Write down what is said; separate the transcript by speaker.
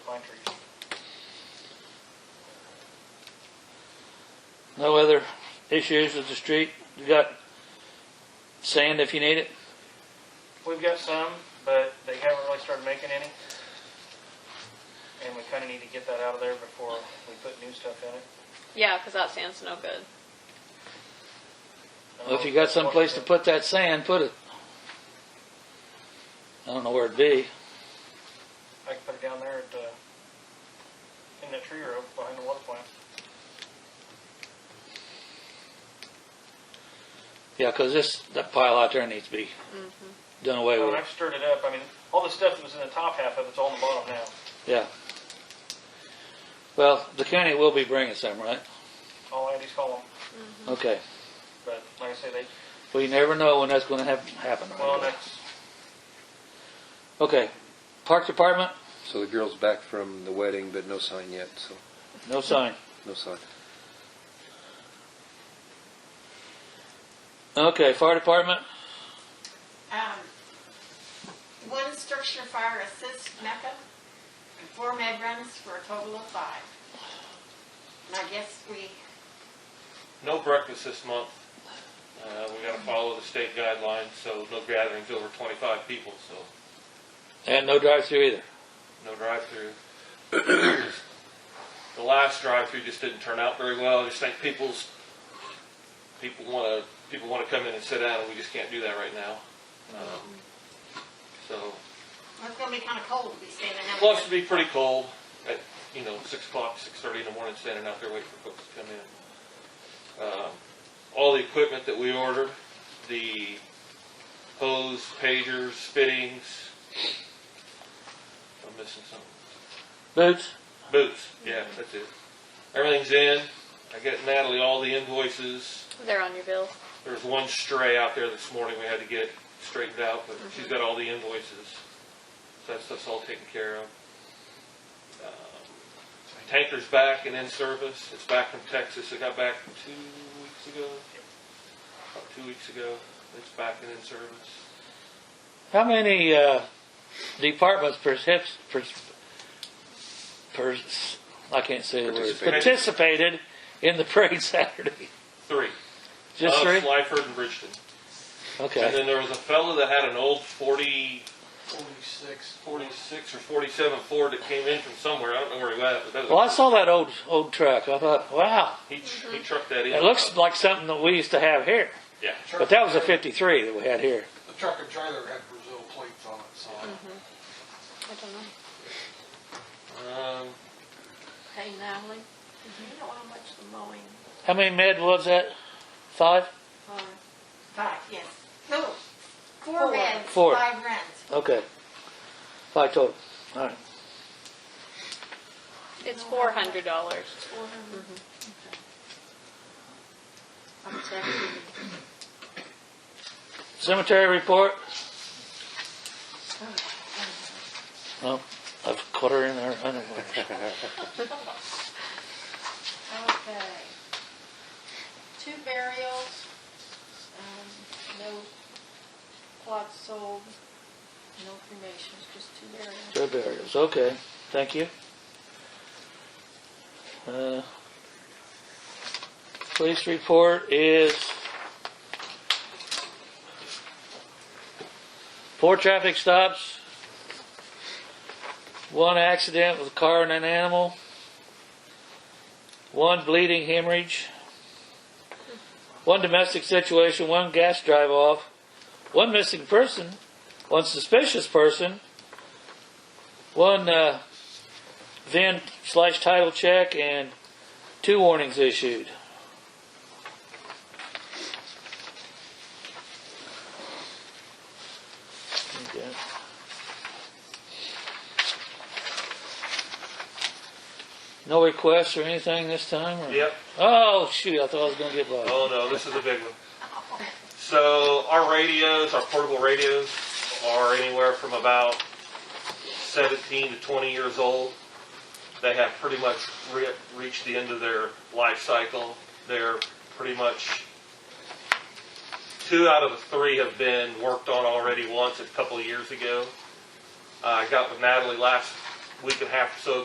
Speaker 1: pine trees.
Speaker 2: No other issues with the street? You got sand if you need it?
Speaker 1: We've got some, but they haven't really started making any. And we kinda need to get that out of there before we put new stuff in it.
Speaker 3: Yeah, because that sand's no good.
Speaker 2: Well, if you got someplace to put that sand, put it. I don't know where it'd be.
Speaker 1: I can put it down there at, uh, in that tree row behind the water plant.
Speaker 2: Yeah, 'cause this, that pile out there needs to be done away
Speaker 1: When
Speaker 2: with.
Speaker 1: I've stirred it up, I mean, all the stuff that was in the top half of it's all in the bottom now.
Speaker 2: Yeah. Well, the county will be bringing some, right?
Speaker 1: All I had is call them,
Speaker 2: Okay.
Speaker 1: but like I say, they,
Speaker 2: We never know when that's gonna hap- happen. right?
Speaker 1: well, that's,
Speaker 2: Okay. Park Department,
Speaker 4: So the girl's back from the wedding, but no sign yet, so
Speaker 2: no sign.
Speaker 4: no sign.
Speaker 2: Okay, Fire Department,
Speaker 5: Um, one structure fire assist method, and four med runs for a total of five. And I guess we,
Speaker 6: No breakfast this month. Uh, we gotta follow the state guidelines, so no gatherings over twenty-five people, so
Speaker 2: and no drive-through either.
Speaker 6: no drive-through. The last drive-through just didn't turn out very well. I just think people's, people wanna, people wanna come in and sit down, and we just can't do that right now. Um, So,
Speaker 5: well, it's gonna be kinda cold to be standing out.
Speaker 6: plus it'd be pretty cold at, you know, six o'clock, six-thirty in the morning, standing out there waiting for folks to come in. Um, All the equipment that we ordered, the hose, pagers, fittings, I'm missing something.
Speaker 2: Boots?
Speaker 6: Boots, yeah, that's it. Everything's in. I got Natalie all the invoices.
Speaker 3: They're on your bill.
Speaker 6: There was one stray out there this morning we had to get straightened out, but she's got all the invoices. So that stuff's all taken care of. Um, Tanker's back and in service. It's back from Texas. It got back two weeks ago. About two weeks ago. It's back and in service.
Speaker 2: How many uh, departments perhaps, pers- pers- I can't say the word,
Speaker 4: Participated.
Speaker 2: participated in the parade Saturday?
Speaker 6: Three.
Speaker 2: Just
Speaker 6: Us,
Speaker 2: three?
Speaker 6: Lyford and Bridgeton. And
Speaker 2: Okay.
Speaker 6: then there was a fella that had an old forty
Speaker 1: forty-six,
Speaker 6: 46 or 47 Ford that came in from somewhere. I don't know where he was, but that was,
Speaker 2: Well, I saw that old old truck. I thought, wow,
Speaker 6: he, he trucked that in.
Speaker 2: it looks like something that we used to have here.
Speaker 6: Yeah.
Speaker 2: But that was a 53 that we had here.
Speaker 7: The truck and trailer had Brazil plates on it, so.
Speaker 3: I don't know.
Speaker 6: Um,
Speaker 5: Hey, Natalie, do you know how much the mowing,
Speaker 2: How many med was that? Five?
Speaker 5: um, five, yes, no, four meds,
Speaker 2: Four.
Speaker 5: five runs.
Speaker 2: Okay. Five total. All right.
Speaker 3: It's four hundred dollars.
Speaker 5: Four hundred. I'm sorry.
Speaker 2: Cemetery report? No, I've caught her in her underwear.
Speaker 5: Okay. Two burials, um, no plots sold, no cremations, just two burials.
Speaker 2: Their burials, okay, thank you. Uh, Police report is four traffic stops, one accident with a car and an animal, one bleeding hemorrhage, one domestic situation, one gas drive-off, one missing person, one suspicious person, one uh, VIN slash title check and two warnings issued. Okay. No requests or anything this time? Or?
Speaker 6: yep.
Speaker 2: Oh, shoot, I thought I was going to get by.
Speaker 6: Oh no, this is a big one. So our radios, our portable radios, are anywhere from about 17 to 20 years old. They have pretty much re- reached the end of their life cycle. They're pretty much two out of the three have been worked on already once a couple of years ago. Uh, I got with Natalie last week and a half or so